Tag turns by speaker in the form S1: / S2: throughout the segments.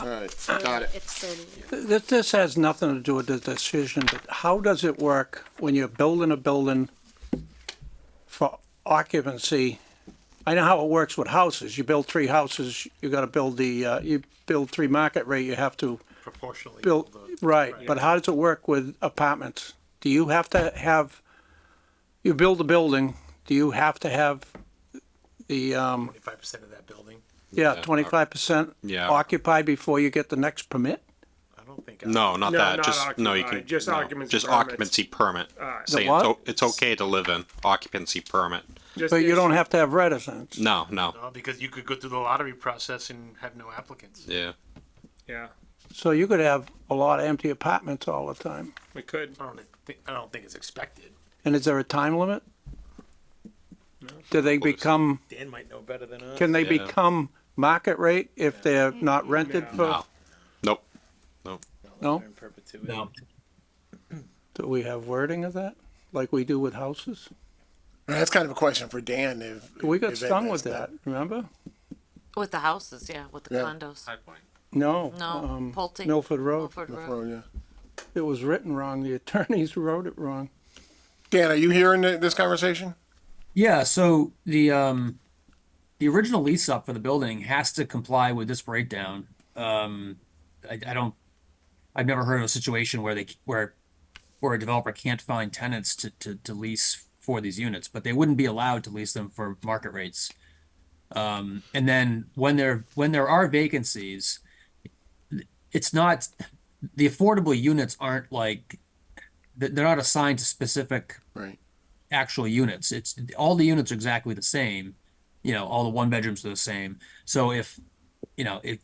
S1: All right, got it.
S2: It's thirty.
S3: This, this has nothing to do with the decision, but how does it work when you're building a building for occupancy? I know how it works with houses. You build three houses, you gotta build the, uh, you build three market rate, you have to
S4: proportionally.
S3: build,
S4: the-
S3: right, but how does it work with apartments? Do you have to have, you build a building, do you have to have the, um,
S4: Twenty-five percent of that building.
S3: yeah, twenty-five percent
S5: Yeah.
S3: occupied before you get the next permit?
S4: I don't think.
S5: No, not
S6: No,
S5: that.
S6: not
S5: just no, you
S6: occupied,
S5: can
S6: just
S5: no,
S6: occupancy
S5: just
S6: permits.
S5: occupancy permit.
S3: The
S5: Say
S3: what?
S5: it's, o- it's okay to live in occupancy permit.
S6: Just
S3: But you
S6: issue-
S3: don't have to have residents.
S5: No, no,
S4: No, because you could go through the lottery process and have no applicants.
S5: yeah.
S6: Yeah,
S3: So you could have a lot of empty apartments all the time.
S6: we could.
S4: I don't think, I don't think it's expected.
S3: And is there a time limit? Do they become,
S4: Dan might know better than us.
S3: can they
S5: Yeah.
S3: become market rate if they're not rented for?
S5: No. Nope.
S3: No?
S4: In perpetuity.
S3: Do we have wording of that, like we do with houses?
S1: That's kind of a question for Dan if.
S3: We got
S1: if
S3: stung
S1: that's
S3: with that, remember?
S7: With the houses, yeah, with the
S1: Yeah.
S7: condos.
S3: No.
S7: No,
S3: um,
S7: Pulte.
S3: Milford Road.
S7: Milford
S1: not-
S7: Road.
S1: yeah.
S3: It was written wrong. The attorneys wrote it wrong.
S1: Dan, are you hearing th- this conversation?
S8: Yeah, so the um the original lease up for the building has to comply with this breakdown. Um I, I don't I've never heard of a situation where they where where a developer can't find tenants to, to, to lease for these units, but they wouldn't be allowed to lease them for market rates. Um and then when there when there are vacancies, it's not the affordable units aren't like they're they're not assigned to specific
S1: Right.
S8: actual units. It's all the units are exactly the same. You know, all the one bedrooms are the same. So if, you know, if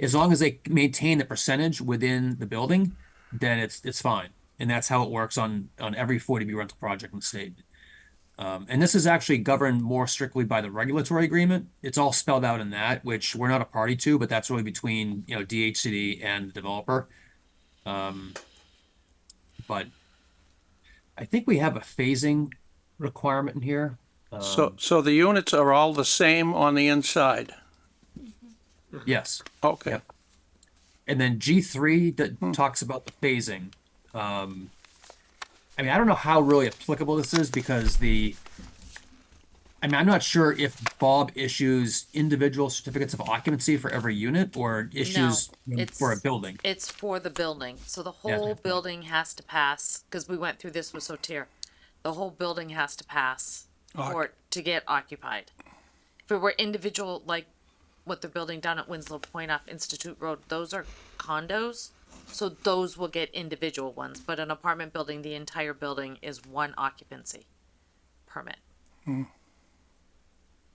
S8: as long as they maintain the percentage within the building, then it's it's fine. And that's how it works on on every 40B rental project in the state. Um, and this is actually governed more strictly by the regulatory agreement. It's all spelled out in that, which we're not a party to, but that's really between you know DHCD and the developer. Um, but I think we have a phasing requirement in here.
S3: So, so the units are all the same on the inside?
S8: Yes.
S3: Okay.
S8: Yep. And then G3 that talks about the phasing. Um, I mean, I don't know how really applicable this is because the. I mean, I'm not sure if Bob issues individual certificates of occupancy for every unit or issues them
S7: it's-
S8: for a building.
S7: It's for the building, so the
S8: Yeah.
S7: whole building has to pass, cause we went through this with Sotir. The whole building has to pass for it to get occupied. If it were individual, like what they're building down at Winslow Point off Institute Road, those are condos. So those will get individual ones, but an apartment building, the entire building is one occupancy permit.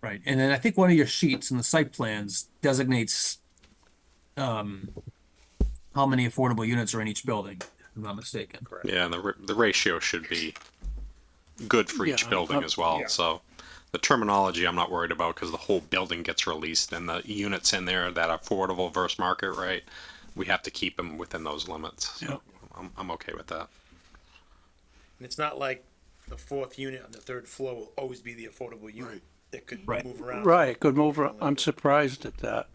S8: Right. And then I think one of your sheets in the site plans designates um, how many affordable units are in each building, if I'm not mistaken. Correct.
S5: Yeah, and the, ra- the ratio should be good for each
S3: Yeah,
S5: building
S3: um,
S5: as well. So the terminology I'm not worried about because the whole building gets released and the units in there that are affordable versus market rate, we have to keep them within those limits. So
S3: Yep.
S5: I'm, I'm okay with that.
S4: And it's not like the fourth unit on the third floor will always be the affordable unit. That could
S8: Right.
S4: move around.
S3: Right, good move. I'm surprised at that.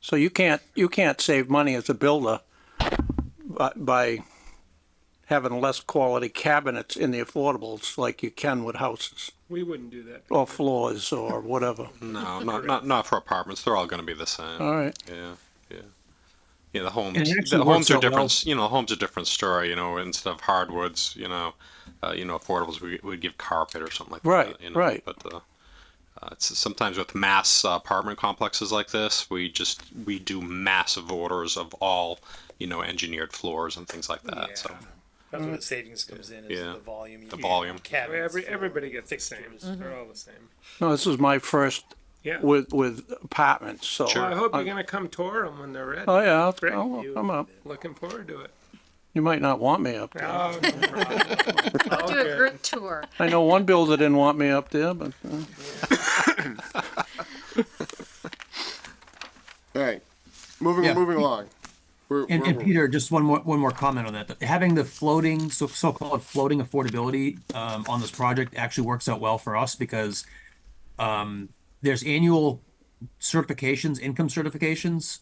S3: So you can't, you can't save money as a builder by, by having less quality cabinets in the affordables like you can with houses
S6: We wouldn't do that.
S3: or floors or whatever.
S5: No, not, not, not for apartments. They're all going to be the same.
S3: All right.
S5: Yeah, yeah, yeah. The homes,
S8: And it actually
S5: the homes
S8: works
S5: are
S8: out well.
S5: different. You know, homes are different story. You know, instead of hardwoods, you know, uh, you know, affordables, we would give carpet or something like
S3: Right,
S5: that. You know?
S3: right.
S5: But uh, uh, it's sometimes with mass uh, apartment complexes like this, we just we do massive orders of all, you know, engineered floors and things like that. So
S4: That's where the savings comes in, is
S5: Yeah.
S4: the volume. you
S5: The
S4: get,
S5: volume.
S4: cabinets
S6: Every,
S4: for-
S6: everybody gets the same. They're all the same.
S3: No, this is my first
S6: Yeah.
S3: with, with apartments, so.
S5: Sure.
S6: I hope you're
S3: I-
S6: gonna come tour them when they're ready.
S3: Oh, yeah, I'll-
S6: Great.
S3: I'll,
S6: You-
S3: I'm up.
S6: Looking forward to it.
S3: You might not want me up there.
S6: Oh, no problem.
S2: Do a group tour.
S3: I know one builder didn't want me up there, but, uh,
S1: All right. Moving,
S8: Yeah.
S1: moving along. We're,
S8: And,
S1: we're-
S8: and Peter, just one more, one more comment on that. that Having the floating, so, so-called floating affordability, um, on this project actually works out well for us because, um, there's annual certifications, income certifications.